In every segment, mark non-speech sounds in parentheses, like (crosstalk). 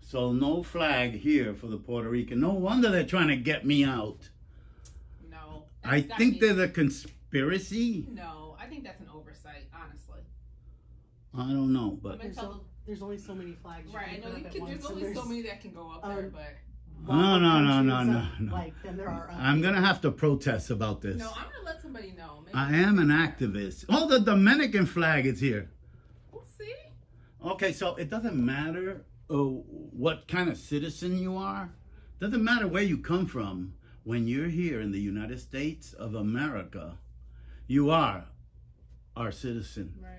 So no flag here for the Puerto Rican. No wonder they're trying to get me out. No. that's- I that think means- there's a conspiracy. No, I think that's an oversight, honestly. I don't know, I'm but gonna There's, tell al- there's only so many flags. the- You right, I can know put you up can, at there's once, and only so there's many that can go up there, um, but more No, no, no, countries no, up, no, no. Like than there are. um, on I'm here. gonna have to protest about this. no, I'm gonna let somebody know. Maybe I am an activist. Oh, the Dominican flag is here. We'll see. Okay, so it doesn't matter uh, what kind of citizen you are. Doesn't matter where you come from. When you're here in the United States of America, you are our citizen. Right.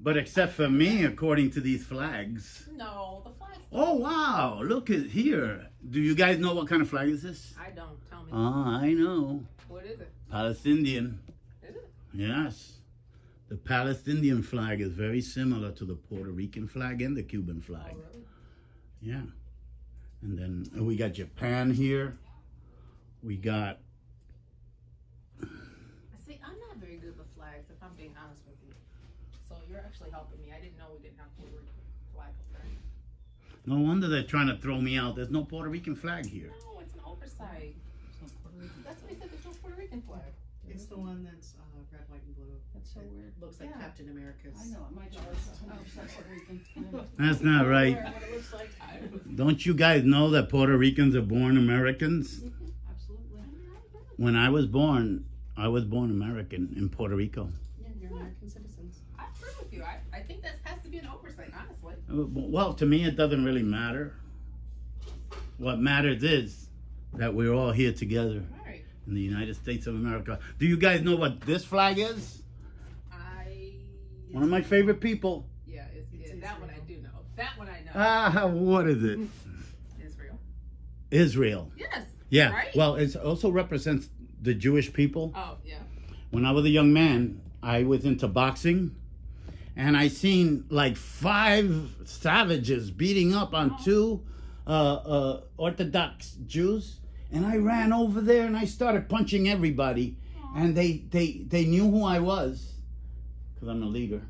But except for me, according to these flags. No, the flag's Oh wow! Look at here. Do you guys know what kind of flag is this? I don't. Tell me. Ah, I know. what is it? Palestinian. Is it? Yes. The Palestinian flag is very similar to the Puerto Rican flag and the Cuban Oh, flag. really? Yeah. And then uh, we got Japan here. We got See, I'm not very good with flags, if I'm being honest with you. So you're actually helping me. I didn't know we didn't have Puerto Rican flag up there. no wonder they're trying to throw me out. There's no Puerto Rican flag here. No, it's an oversight. That's what he said. There's no Puerto Rican flag. It's the one that's uh, red, white, and blue. That's so weird. Looks like Yeah. Captain America's. I know, my daughter's a 100% Puerto Rican. That's not Aware right. of What it looks like, I, Don't you guys know that Puerto Ricans are born Americans? absolutely. When I was born, I was born American in Puto Rico. Yeah, you're American citizens. I agree with you. I, I think that has to be an oversight, honestly. Uh, Well, to me, it doesn't really matter. What matters is that we're all here together All right. in the United States of America. Do you guys know what this flag is? I. One of my favorite people. Yeah, it's, It's yeah, that one I Israel. do know. That one I know. Ah, what is it? Israel. Israel. Yes. Yeah. Right? Well, it also represents the Jewish people. Oh, yeah. When I was a young man, I was into boxing, and I seen like five savages beating up on two uh, uh, Orthodox Jews, and I ran over there and I started punching everybody, and they they they knew who I was, cause I'm a leader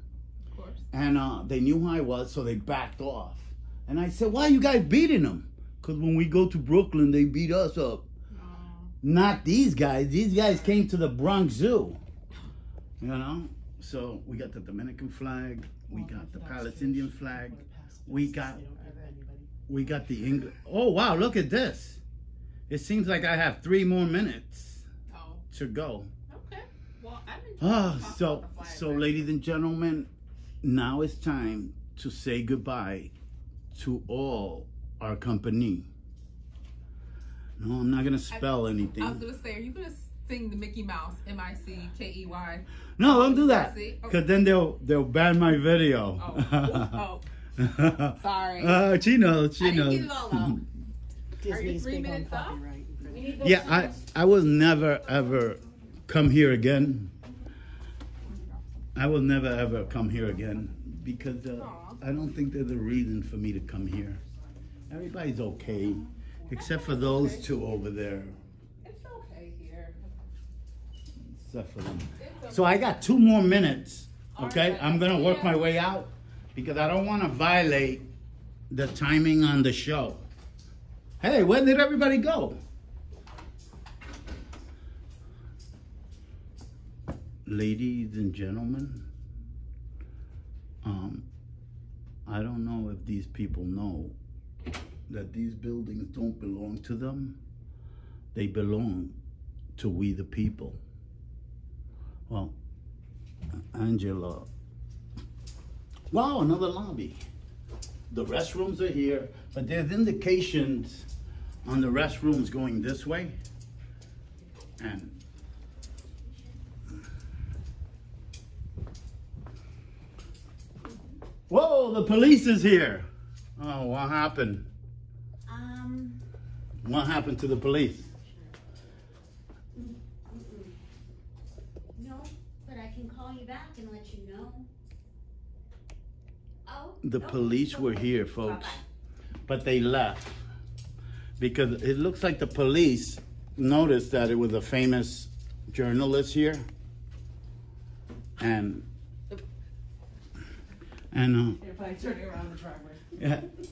Of course. and uh, they knew who I was, so they backed off. And I said, "Why you guys beating them? Because when we go to Brooklyn, they beat us up. Not these guys. These guys came to the Bronx Zoo, you know. So we got the Dominican flag, we Oh, got the Palestinian flag, We got- we got the English. Oh wow, look at this! It seems like I have three more minutes Oh, to go. okay. Well, I'm enjoying Ah, talking so about the flag so, right ladies and gentlemen, now it's time to say goodbye to all our company. No, I'm not gonna spell I was anything. gonna say, are you gonna sing the Mickey Mouse M I C K E Y? No, don't do that, See? Oh. cause then they'll they'll ban my video. (laughs) Oh, oh, sorry. Uh, she knows. I She didn't knows. get it (laughs) all out. Disney's three big on minutes up? copyright. and We credit. need those Yeah, I things. I will never ever come here again. I will never ever come here again because uh, Aw. I don't think there's a reason for me to come here. Everybody's okay, except for those two over there. It's okay here. Except for them. It's okay. So I got two more minutes. Okay, Alright. I'm gonna work my way out because I don't want to violate the timing on the show. Hey, where did everybody go? Ladies and gentlemen, um, I don't know if these people know that these buildings don't belong to them. They belong to we the people. Well, Angela. Wow, another lobby. The restrooms are here, but there's indications on the restrooms going this way. And Whoa, the police is here. Oh, what happened? Um, What happened to the police? no, but I can call you back and let you know. Oh. The oh, police were okay. here, folks, Bye-bye. but they left because it looks like the police noticed that it was a famous journalist here, and uh, and uh, If I turn it around the driveway. yeah,